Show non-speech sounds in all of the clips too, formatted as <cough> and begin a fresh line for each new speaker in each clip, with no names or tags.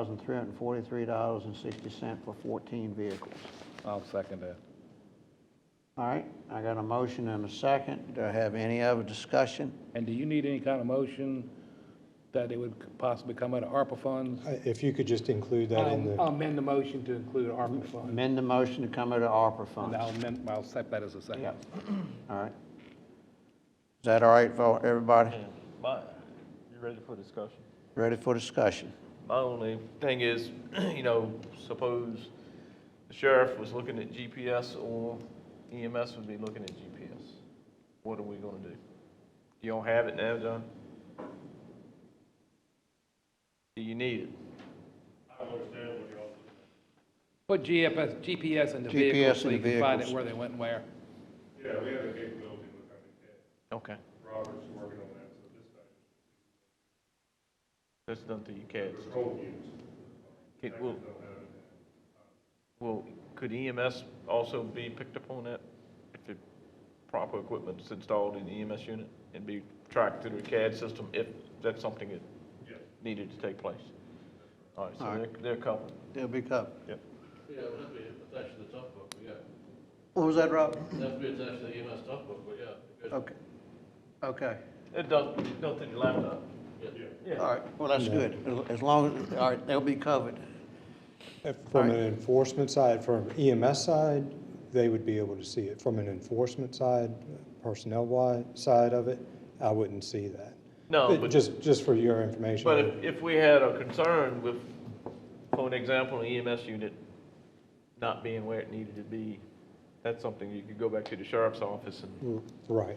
thousand three hundred and forty-three dollars and sixty cent for fourteen vehicles.
I'll second that.
All right, I got a motion and a second. Do I have any other discussion?
And do you need any kind of motion that it would possibly come out of ARPA funds?
I- Uh, If you could just include that in
Um, uh,
I'll I'll
the,
amend the motion to include ARPA funds.
Amend the motion to come out of ARPA
And
funds.
I'll amend, I'll set that as a second.
Yep. All right. Is that all right for everybody?
My, you ready for discussion?
Ready for discussion?
My only thing is, <clears throat> you know, suppose the sheriff was looking at GPS or EMS would be looking at GPS. What are we gonna do? You don't have it now, John? Do you need it?
Put GPS, GPS in the vehicle
GPS
so
in
you
the
can find
vehicles.
it where they went and where.
Yeah, we have a capability with that.
Okay,
Robert's working on that, so this time,
that's done through your CADs.
it's whole use.
It will, will, could EMS also be picked up on that? If the proper equipment is installed in the EMS unit and be tracked through the CAD system if that's something that needed to take place? All right, so
All
they're,
right.
they're covered.
It'll be covered.
Yep.
Yeah, it would be attached to the tough book, but yeah.
What was that, Rob?
That would be attached to the E EMS tough book, but yeah. because-
Okay. Okay.
It does, it goes through your laptop.
All right, well, that's good. As long as, all right, they'll be covered.
uh, from an enforcement side, from EMS side, they would be able to see it. From an enforcement side, personnel wide side of it, I wouldn't see that.
No,
But
but,
Just, just for your information.
but if, if we had a concern with, for an example, an EMS unit not being where it needed to be, that's something you could go back to the sheriff's office and,
Right,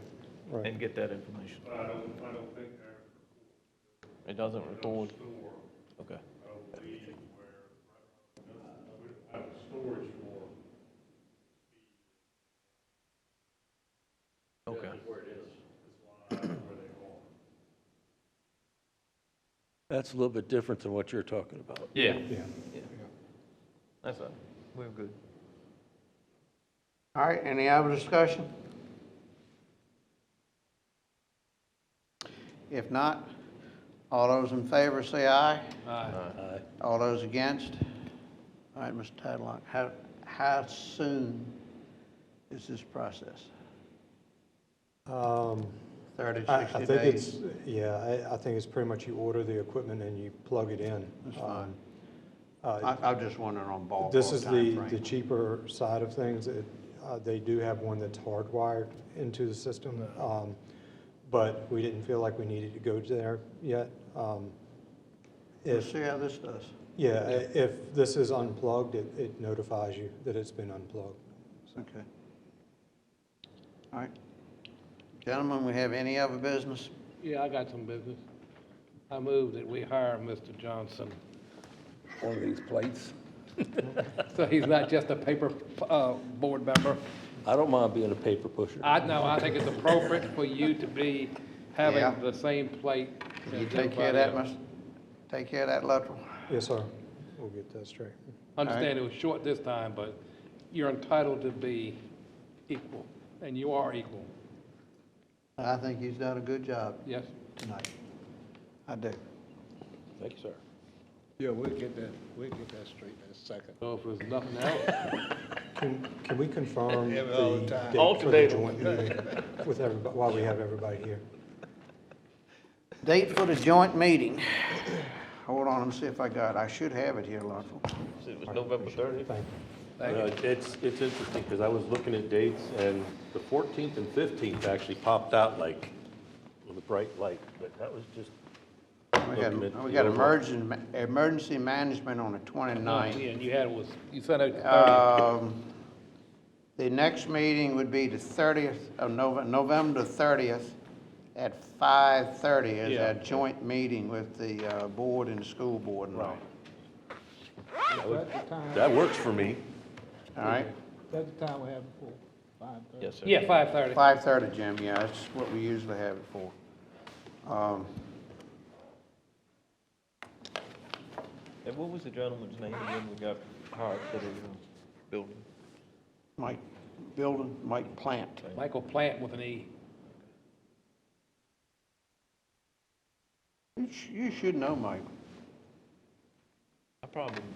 right.
and get that information.
But I don't, I don't think there's
It doesn't record,
store,
okay.
I don't believe where, I have storage for,
Okay.
That's a little bit different than what you're talking about.
Yeah.
Yeah.
That's all. We're good.
All right, any other discussion? If not, all those in favor say aye.
Aye.
All those against? All right, Mr. Tadlock, how, how soon is this process?
Um,
30,
I, I
60
think
days?
it's, yeah, I, I think it's pretty much you order the equipment and you plug it in. Um, uh,
I, I'm just wondering on ballpark
This is the, the
timeframe.
cheaper side of things. It, uh, they do have one that's hardwired into the system. Um, but we didn't feel like we needed to go there yet. Um,
We'll
if,
see how this does.
yeah, i- if this is unplugged, it, it notifies you that it's been unplugged.
Okay. All right. Gentlemen, we have any other business?
Yeah, I got some business. I move that we hire Mr. Johnson,
One of these plates.
so he's not just a paper, uh, board member.
I don't mind being a paper pusher.
I know, I think it's appropriate for you to be
Yeah.
having the same plate
Can you
as
take care of that,
everybody else.
Mr., take care of that, Luttrell?
Yes, sir. We'll get that straight.
Understand it was short this time, but you're entitled to be equal, and you are equal,
I think he's done a good job
yes?
tonight. I do.
Thank you, sir.
Yeah, we'll get that, we'll get that straight in a second.
So if there's nothing <laughs> else,
Can, can we confirm the
Yeah, all the
date
time.
for the
Alternate.
joint meeting with everybody, while we have everybody here?
Date for the joint meeting. Hold on, let me see if I got, it. I should have it here, Luttrell.
It was November thirtieth.
Thank you.
Uh, It's, it's interesting, because I was looking at dates, and the 14th and 15th actually popped out like, with a bright light, but that was just,
We got,
Looking at
we
the
got
overall.
emergency, ma- emergency management on the 29th.
and you had was, you sent out the thirty.
Um, The next meeting would be the 30th of Nov, November 30th at 5:30 is
Yeah.
our joint meeting with the uh, board and the school board and all.
that works for me.
All right?
That's the time we had before, five thirty.
Yes, sir.
Yeah, five thirty.
5:30, Jim, yeah, that's what we usually have it for. Um,
And what was the gentleman's name again we got hired for the uh, building?
Mike, building, Mike Plant.
Michael Plant with an E.
You sh- You should know Mike.
problem